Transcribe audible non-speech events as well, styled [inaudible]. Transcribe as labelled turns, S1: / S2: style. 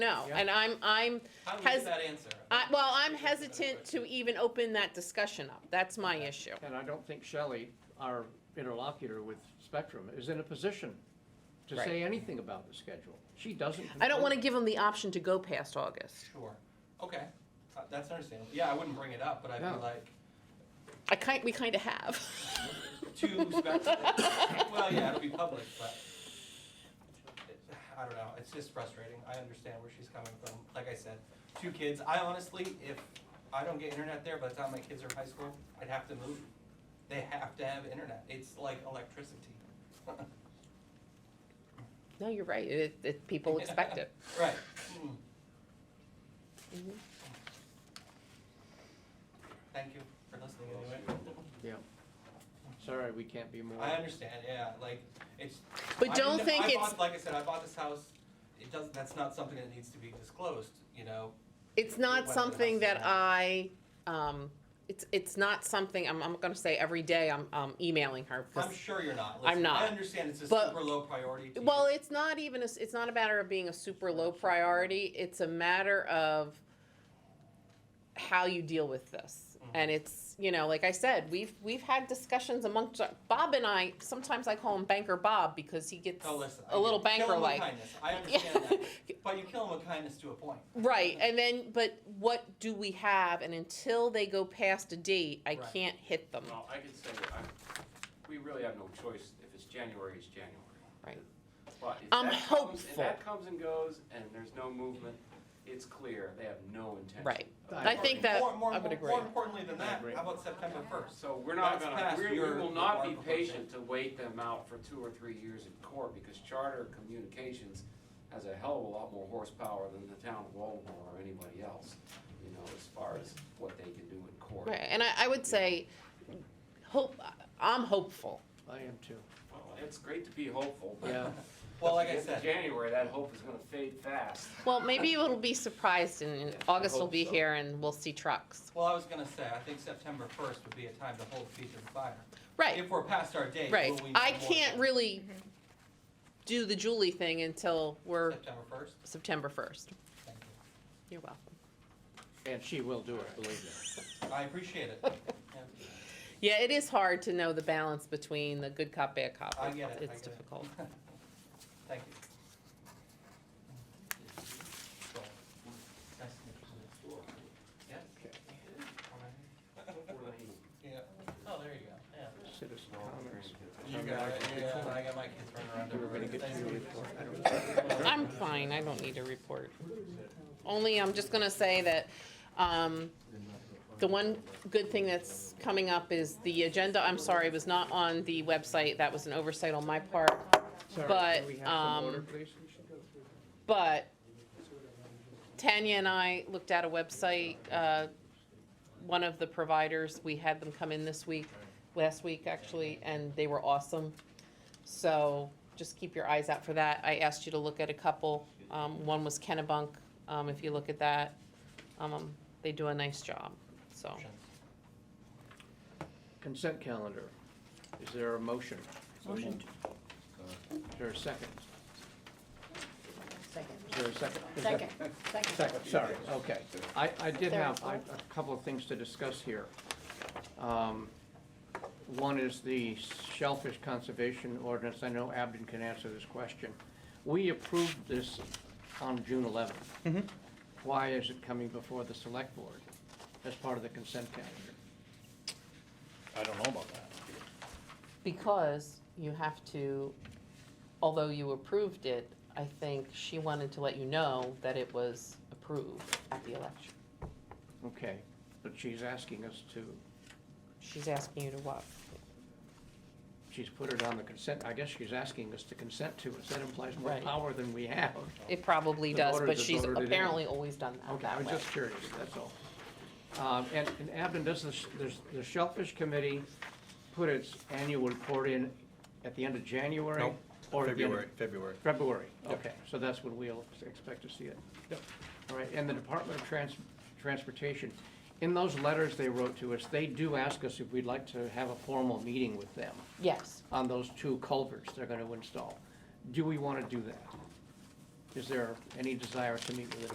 S1: No,
S2: Yeah.
S1: and I'm, I'm,
S3: How do we
S1: Has-
S3: get that answer?
S1: I, well, I'm hesitant to even open that discussion up. That's my issue.
S2: And I don't think Shelley, our interlocutor with Spectrum, is in a position to say anything about the schedule. She doesn't.
S1: I don't want to
S2: control
S1: give them the option to go past August.
S3: Sure, okay, Uh, that's understandable, yeah, I wouldn't bring it up, but I'd
S2: No.
S3: be like,
S1: I kind, we kind of have. [laughs]
S3: too speculative. Well, yeah, it'll be public, but it- I don't know, it's just frustrating, I understand where she's coming from, like I said, two kids, I honestly, if I don't get internet there by the time my kids are in high school, I'd have to move. They have to have internet, it's like electricity. [laughs]
S1: No, you're right. It, it, people expect
S3: [laughs]
S1: it.
S3: Right. Mm.
S1: Mhm.
S3: Thank you for listening anyway.
S2: it. Yeah. Sorry, we can't be more.
S3: I understand, yeah, like, it's.
S1: But
S3: I
S1: don't
S3: didn't-
S1: think
S3: I
S1: it's,
S3: bought- Like I said, I bought this house, it does, that's not something that needs to be disclosed, you know?
S1: it's
S3: Whether
S1: not
S3: that's
S1: something that
S3: the-
S1: I, um, it's, it's not something, I'm, I'm going to say every day I'm, um emailing her. 'cause-
S3: I'm sure you're not.
S1: I'm
S3: Listen, I
S1: not.
S3: understand it's a
S1: But-
S3: super low priority to you.
S1: Well, it's not even, a s it's not a matter of being a super low priority, it's a matter of how you deal with this.
S4: Mm-hmm.
S1: And it's, you know, like I said, we've, we've had discussions amongst, our- Bob and I, sometimes I call him Banker Bob because he gets
S3: No, listen, I
S1: a little
S3: get it. Kill
S1: banker
S3: 'em with
S1: like.
S3: kindness.
S1: [laughs]
S3: I understand that, but you kill them with kindness to a point.
S1: Right, and then, but what do we have, and until they go past a date, I
S3: Right.
S1: can't hit them.
S4: Well, I can say, that I, we really have no choice, if it's January, it's January.
S1: Right.
S4: But if
S1: I'm
S4: that comes, if
S1: hopeful.
S4: that comes and goes and there's no movement, it's clear, they have no intention.
S1: Right.
S4: of
S2: I
S4: parting.
S1: think that-
S3: More- more-
S1: I would
S3: more-
S1: agree.
S3: More importantly than
S2: I
S3: that,
S2: agree.
S3: how about September first?
S4: So we're not
S3: That's past
S4: gonna, we we
S3: your-
S4: will not be
S3: your
S4: patient to wait them out for two or three years in court, because Charter Communications has a hell of a lot more horsepower than the town of Baltimore or anybody else, you know, as far as what they can do in court.
S1: Right, and I, I would say, hope, I'm hopeful.
S2: I am too.
S4: Well, it's great to be hopeful, but.
S2: Yeah.
S3: Well, like I
S4: once we get to
S3: said,
S4: January, that hope is gonna fade fast.
S1: Well,
S4: [laughs]
S1: maybe it'll be surprised and and
S4: Yeah, I
S1: August will
S4: hope
S1: be
S4: so.
S1: here and we'll see trucks.
S3: well, I was gonna say, I think September first would be a time to hold feet to the fire.
S1: Right,
S3: If we're past our date, will
S1: right.
S3: we know
S1: I
S3: more
S1: can't
S3: than
S1: really do the Julie thing until we're
S3: September first?
S1: September first.
S3: Thank you.
S1: You're welcome.
S2: And she will do it, believe me.
S3: I appreciate it.
S1: [laughs]
S3: Yeah.
S1: Yeah, it is hard to know the balance between the good cop, bad cop.
S3: I get it, I
S1: It's
S3: get it.
S1: difficult.
S3: [laughs] Thank you. So, nice to meet you. Yes? [laughs]
S2: Okay.
S3: Alright. Yeah. Oh, there you go, yeah.
S2: Citizen comments.
S3: You got it, yeah, I got my kids running around
S2: We're gonna
S3: everywhere.
S2: get to your report. I don't-
S1: I'm fine, I don't need a report. Only, I'm just gonna say that, um, the one good thing that's coming up is the agenda, I'm sorry, was not on the website. That was an oversight on my part.
S2: Sorry,
S1: But,
S2: can we have some order,
S1: um,
S2: please?
S1: But Tanya and I looked at a website, uh, one of the providers, we had them come in this week, last week actually, and they were awesome. So just keep your eyes out for that. I asked you to look at a couple. Um, one was Kennebunk, um, if you look at that, um, they do a nice job, so.
S2: Consent calendar. Is there a motion?
S5: Motion
S2: Is there a second?
S5: Second.
S2: Is there a second? Is that-
S5: Second, second.
S2: Second, sorry, okay. I, I did
S5: Third,
S2: have I-
S5: fourth.
S2: a couple of things to discuss here. Um, One is the shellfish conservation ordinance. I know Abden can answer this question. We approved this on June 11th. Why is it coming before the select board as part of the consent calendar?
S6: I don't know about that.
S1: Because you have to, although you approved it, I think she wanted to let you know that it was approved at the election.
S2: Okay, but she's asking us to,
S1: She's asking you to what?
S2: she's put it on the consent, I guess she's asking us to consent to it. So That implies more
S1: Right.
S2: power than we have.
S1: It probably
S2: The
S1: does,
S2: voters
S1: but
S2: have
S1: she's
S2: voted it in.
S1: apparently always done that
S2: Okay, I
S1: that
S2: was
S1: way.
S2: just curious, that's all. Um, And, and Abden, does the, sh- does the Shellfish Committee put its annual report in at the end of January?
S6: Nope,
S2: Or at the end of-
S6: February, February.
S2: February,
S6: Yep.
S2: okay, so that's when we'll expect to see it.
S6: Yep.
S2: All right, and the Department of Trans, Transportation, in those letters they wrote to us, they do ask us if we'd like to have a formal meeting with them
S1: Yes,
S2: on those two culverts they're gonna install. Do we wanna do that? Is there any desire to meet with a